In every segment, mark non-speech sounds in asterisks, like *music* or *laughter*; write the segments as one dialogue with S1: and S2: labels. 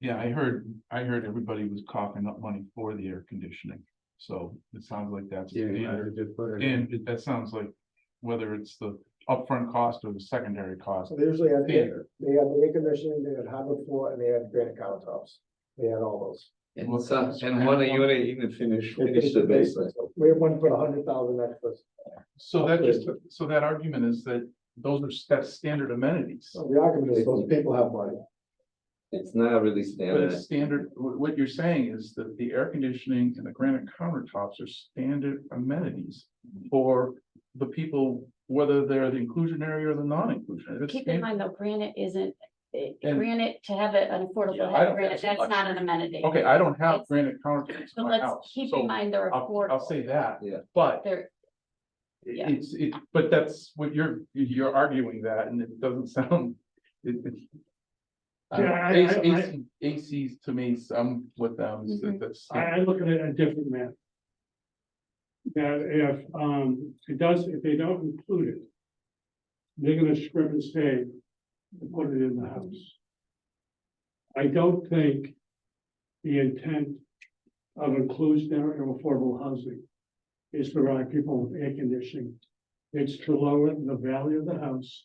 S1: Yeah, I heard, I heard everybody was coughing up money for the air conditioning, so it sounds like that's.
S2: Yeah, you
S1: standard.
S2: have to put it.
S1: And it- that sounds like whether it's the upfront cost or the secondary cost,
S3: So they usually had, they had
S1: Standard.
S3: the air conditioning, they had hardwood floor, and they had granite countertops. They had all those.
S2: And so, and one unit even finish, finish the basement.
S3: We had one to put a hundred thousand extras.
S1: so that just, so that argument is that those are sta- standard amenities.
S3: So the argument is those people have money.
S2: It's not really
S1: But
S2: standard.
S1: it's standard, what, what you're saying is that the air conditioning and the granite countertops are standard amenities for the people, whether they're the inclusionary or the non-inclusionary. It's
S4: Keep in
S1: stan-
S4: mind though, granite isn't, eh,
S1: And-
S4: granite, to have it an
S1: Yeah,
S4: affordable,
S1: I don't
S4: head granite,
S1: think
S4: that's
S1: it's a
S4: not an amenity.
S1: Okay, I don't have
S4: It's-
S1: granite countertops in
S4: But
S1: my
S4: let's
S1: house,
S4: keep in
S1: so
S4: mind they're
S1: I'll, I'll say
S4: affordable.
S1: that.
S2: Yeah.
S1: But
S4: They're, Yeah.
S1: it's, it, but that's what you're, you're arguing that and it doesn't *laughs* sound. it- it- I don't know,
S5: Yeah, I-
S1: AC-
S5: I- Mm-hmm.
S1: AC ACs to me, some with them, is that-
S4: Mhm.
S1: that's.
S5: I, I look at it a different manner. That if, um, it does, if they don't include it, they're gonna strip and save and put it in the house. I don't think the intent of inclusionary or affordable housing is to provide people with air conditioning. It's to lower the value of the house,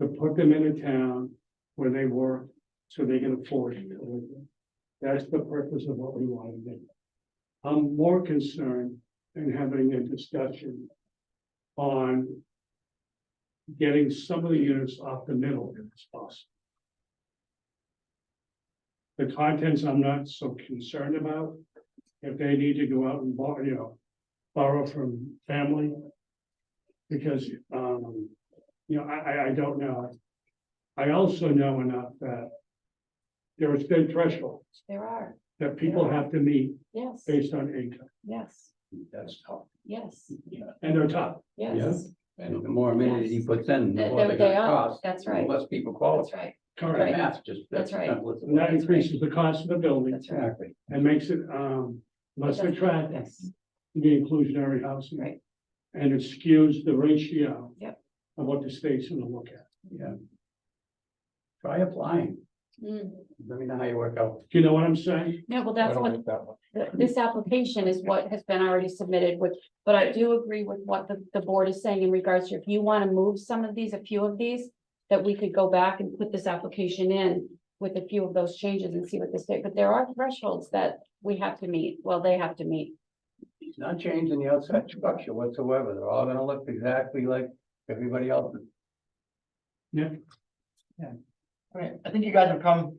S5: to put them in a town where they work, so they can afford to live there. That's the purpose of what we want to do. I'm more concerned in having a discussion on getting some of the units off the middle if it's possible. The contents I'm not so concerned about. If they need to go out and borrow, you know, borrow from family. Because, um, you know, I, I, I don't know. I also know enough that there has been thresholds
S4: there are,
S5: that people have to meet
S4: yes,
S5: based on income.
S4: yes,
S2: That's tough.
S4: yes,
S5: And they're top.
S4: yes.
S2: And the more amenities you put in, the
S4: Th-
S2: more
S4: There
S2: they're
S4: they
S2: gonna
S4: are,
S2: cost.
S4: that's
S2: the
S4: right,
S2: Less people
S4: that's
S2: qualify.
S4: right,
S2: The
S4: Right.
S5: Correct.
S2: math just-
S4: That's right.
S2: simple as-
S5: And that increases the cost of the building
S4: that's right.
S2: Exactly.
S5: and makes it um less
S4: That's-
S5: attractive,
S4: yes.
S5: to the inclusionary housing.
S4: Right.
S5: And it skews the ratio.
S4: Yep.
S5: Of what the state's gonna look at.
S2: Yeah. Try applying.
S4: Mm.
S2: Let me know how you work out.
S5: Do you know what I'm saying?
S4: No, well,
S1: I
S4: that's
S1: don't
S4: what
S1: like that one.
S4: th- this application is what has been already submitted, which, but I do agree with what the, the board is saying in regards to if you want to move some of these, a few of these, that we could go back and put this application in with a few of those changes and see what the state, but there are thresholds that we have to meet, well, they have to meet.
S2: He's not changing the outside structure whatsoever. They're all gonna look exactly like everybody else.
S6: I mean, I think you guys have come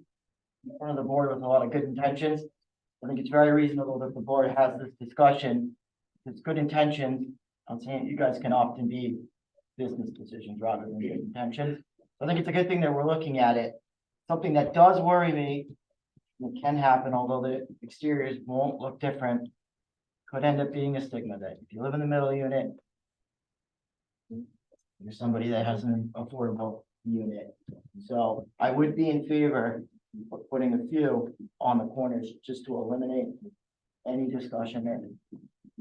S6: in front of the board with a lot of good intentions. I think it's very reasonable that the board has this discussion. It's good intentions. I'm saying you guys can often be business decisions rather than good intentions. I think it's a good thing that we're looking at it. Something that does worry me, that can happen, although the exteriors won't look different, could end up being a stigma that if you live in the middle unit, you're somebody that has an affordable unit. So I would be in favor of putting a few on the corners just to eliminate any discussion there.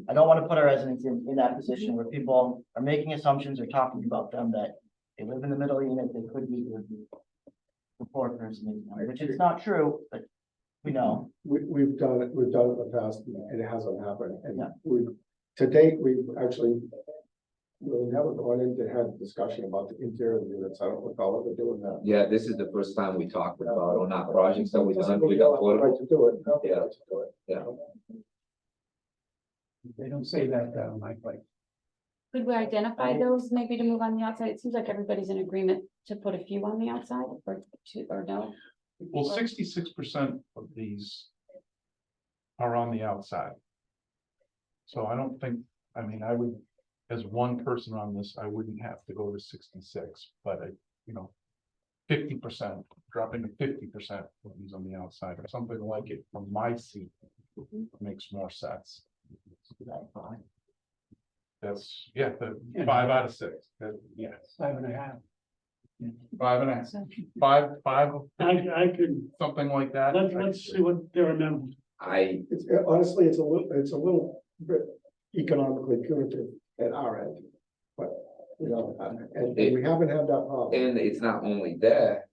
S6: I don't want to put our residents in, in that position where people are making assumptions or talking about them that they live in the middle unit, they could be with the poor person, which is not true, but we know.
S3: We, we've done it, we've done it in the past, and it hasn't happened, and
S6: Yeah.
S3: we, to date, we've actually. We haven't gone in to have a discussion about the interior of the units, I don't recall ever doing that.
S7: Yeah, this is the first time we talked about on our projects that we done
S3: Doesn't really
S7: with
S3: have the right
S7: affordable.
S3: To do it, no,
S7: Yeah.
S3: right to do it.
S7: Yeah.
S2: They don't say that down my place.
S4: Could we identify those maybe to move on the outside? It seems like everybody's in agreement to put a few on the outside or two, or no?
S1: Well, sixty-six percent of these are on the outside. So I don't think, I mean, I would, as one person on this, I wouldn't have to go to sixty-six, but I, you know, fifty percent, dropping to fifty percent of these on the outside or something like it from my seat makes more sense. That's, yeah, the five out of six, that- yeah,
S2: Five and a half.
S1: five and a half, five, five,
S5: I, I could,
S1: something like that.
S5: let's, let's see what they're amenable.
S7: I,
S3: It's, honestly, it's a little, it's a little bit economically punitive at our end, but, you know, and, and we haven't had that problem.
S7: and it's not only that,